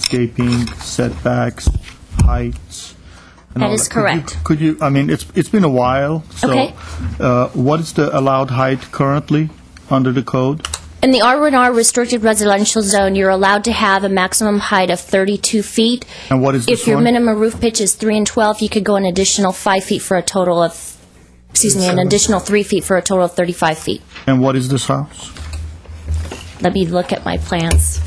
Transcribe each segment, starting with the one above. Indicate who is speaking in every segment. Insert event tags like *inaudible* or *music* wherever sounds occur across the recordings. Speaker 1: landscaping, setbacks, heights. and
Speaker 2: That
Speaker 1: all
Speaker 2: is
Speaker 1: Could you-
Speaker 2: correct.
Speaker 1: Could you, I mean, it's, it's been a while, so
Speaker 2: Okay.
Speaker 1: uh, what is the allowed height currently under the code?
Speaker 2: In the R1R restricted residential zone, you're allowed to have a maximum height of 32 feet.
Speaker 1: And what is this
Speaker 2: If your
Speaker 1: one?
Speaker 2: minimum roof pitch is 3 and 12, you could go an additional 5 feet for a total of, excuse me, an additional 3 feet for a total of 35 feet.
Speaker 1: And what is this house?
Speaker 2: Let me look at my plans.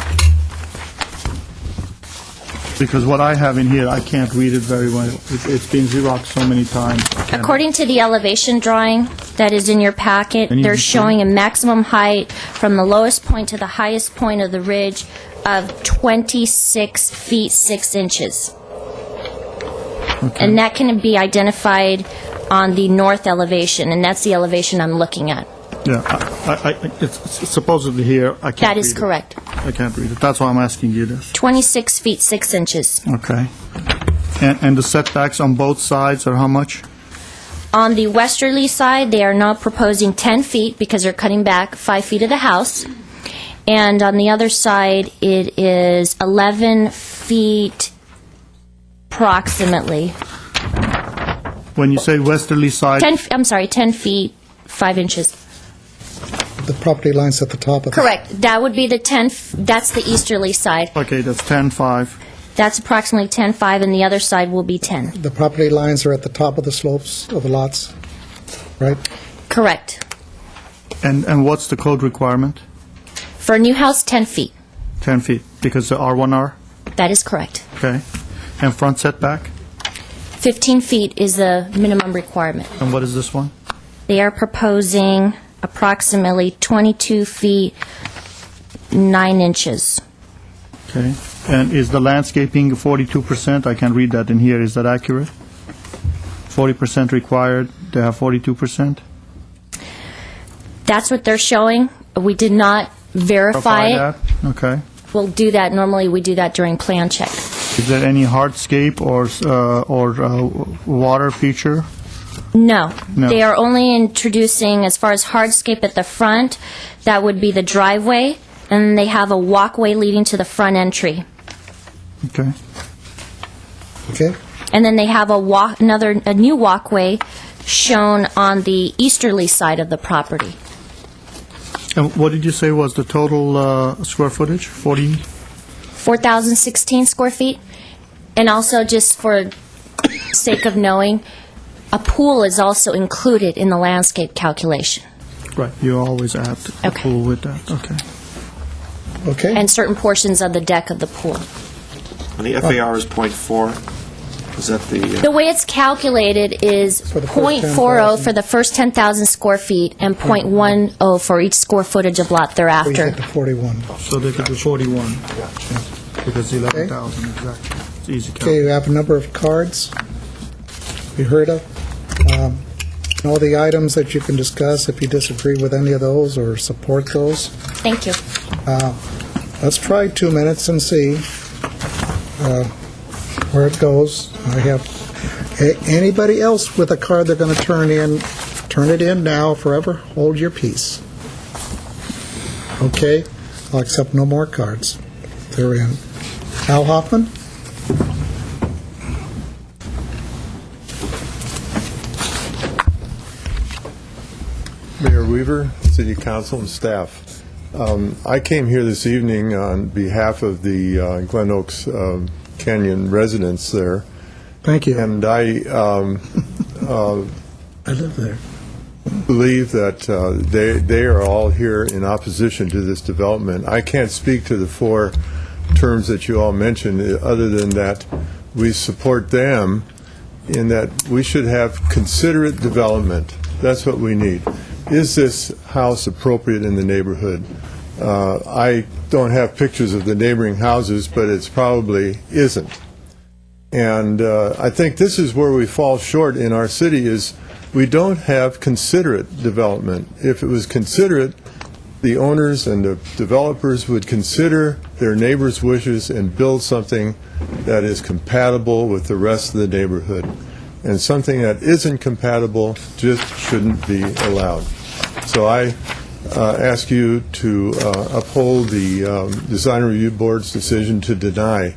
Speaker 1: Because what I have in here, I can't read it very well. It- It's been Xeroxed so many times.
Speaker 2: According to the elevation drawing that is in your packet,
Speaker 1: Any
Speaker 2: they're
Speaker 1: detail?
Speaker 2: showing a maximum height from the lowest point to the highest point of the ridge of 26 feet 6 inches. And that can be identified on the north elevation, and that's the elevation I'm looking at.
Speaker 1: Yeah, I- I, I, it's supposedly here, I can't
Speaker 2: That is
Speaker 1: read it.
Speaker 2: correct.
Speaker 1: I can't read it, that's why I'm asking you this.
Speaker 2: 26 feet 6 inches.
Speaker 1: Okay. And, and the setbacks on both sides are how much?
Speaker 2: On the westerly side, they are now proposing 10 feet because they're cutting back 5 feet of the house. And on the other side, it is 11 feet approximately.
Speaker 1: When you say westerly side,
Speaker 2: 10, f- I'm sorry, 10 feet, 5 inches.
Speaker 3: The property line's at the top of the...
Speaker 2: Correct. That would be the 10, f- that's the easterly side.
Speaker 1: okay, that's 10, 5.
Speaker 2: That's approximately 10, 5, and the other side will be 10.
Speaker 3: The property lines are at the top of the slopes of the lots, right?
Speaker 2: Correct.
Speaker 1: And, and what's the code requirement?
Speaker 2: For a new house, 10 feet.
Speaker 1: 10 feet, because the R1R,
Speaker 2: That is correct.
Speaker 1: okay? And front setback?
Speaker 2: 15 feet is the minimum requirement.
Speaker 1: And what is this one?
Speaker 2: They are proposing approximately 22 feet 9 inches.
Speaker 1: Okay. And is the landscaping 42%? I can read that in here, is that accurate? 40% required, they have 42%?
Speaker 2: That's what they're showing. We did not verify it.
Speaker 1: that? Okay.
Speaker 2: We'll do that, normally we do that during plan check.
Speaker 1: Is there any hardscape or, s- uh, or uh, water feature?
Speaker 2: No.
Speaker 1: No.
Speaker 2: They are only introducing, as far as hardscape at the front, that would be the driveway, and they have a walkway leading to the front entry.
Speaker 1: Okay.
Speaker 3: Okay?
Speaker 2: And then they have a walk, another, a new walkway shown on the easterly side of the property.
Speaker 1: And what did you say was the total uh, square footage? 40?
Speaker 2: 4,016 square feet. And also, just for sake of knowing, a pool is also included in the landscape calculation,
Speaker 1: Right, you always add a
Speaker 2: Okay.
Speaker 1: pool with that, okay.
Speaker 3: Okay?
Speaker 2: and certain portions of the deck of the pool.
Speaker 4: And the FAR is .4? Is that the,
Speaker 2: The
Speaker 4: uh,
Speaker 2: way it's calculated is
Speaker 3: For the first
Speaker 2: .40 for
Speaker 3: 10,000.
Speaker 2: the first 10,000 square feet and .10 for each square footage of lot
Speaker 3: We
Speaker 2: thereafter.
Speaker 3: hit the 41.
Speaker 1: So they could do 41, because 11,000, exactly. It's easy
Speaker 3: Okay,
Speaker 1: calculation.
Speaker 3: you have a number of cards you heard of. Um, and All the items that you can discuss, if you disagree with any of those or support those.
Speaker 2: Thank you.
Speaker 3: Uh, Let's try two minutes and see uh, where it goes. I have, a- anybody else with a card they're going to turn in, turn it in now, forever, hold your peace. Okay, I'll accept no more cards. They're in. Al Hoffman?
Speaker 5: Mayor Weaver, City Council, and staff. Um, I came here this evening on behalf of the uh, Glen Oaks um, Canyon residents there,
Speaker 3: Thank you.
Speaker 5: and I um, *laughs* uh,
Speaker 3: I live there.
Speaker 5: believe that uh, they they are all here in opposition to this development. I can't speak to the four terms that you all mentioned, uh, other than that we support them in that we should have considerate development. That's what we need. Is this house appropriate in the neighborhood? Uh, I don't have pictures of the neighboring houses, but it's probably isn't. And uh, I think this is where we fall short in our city is we don't have considerate development. If it was considerate, the owners and the developers would consider their neighbors' wishes and build something that is compatible with the rest of the neighborhood. And something that isn't compatible just shouldn't be allowed. So I uh, ask you to uh, uphold the um, Design Review Board's decision to deny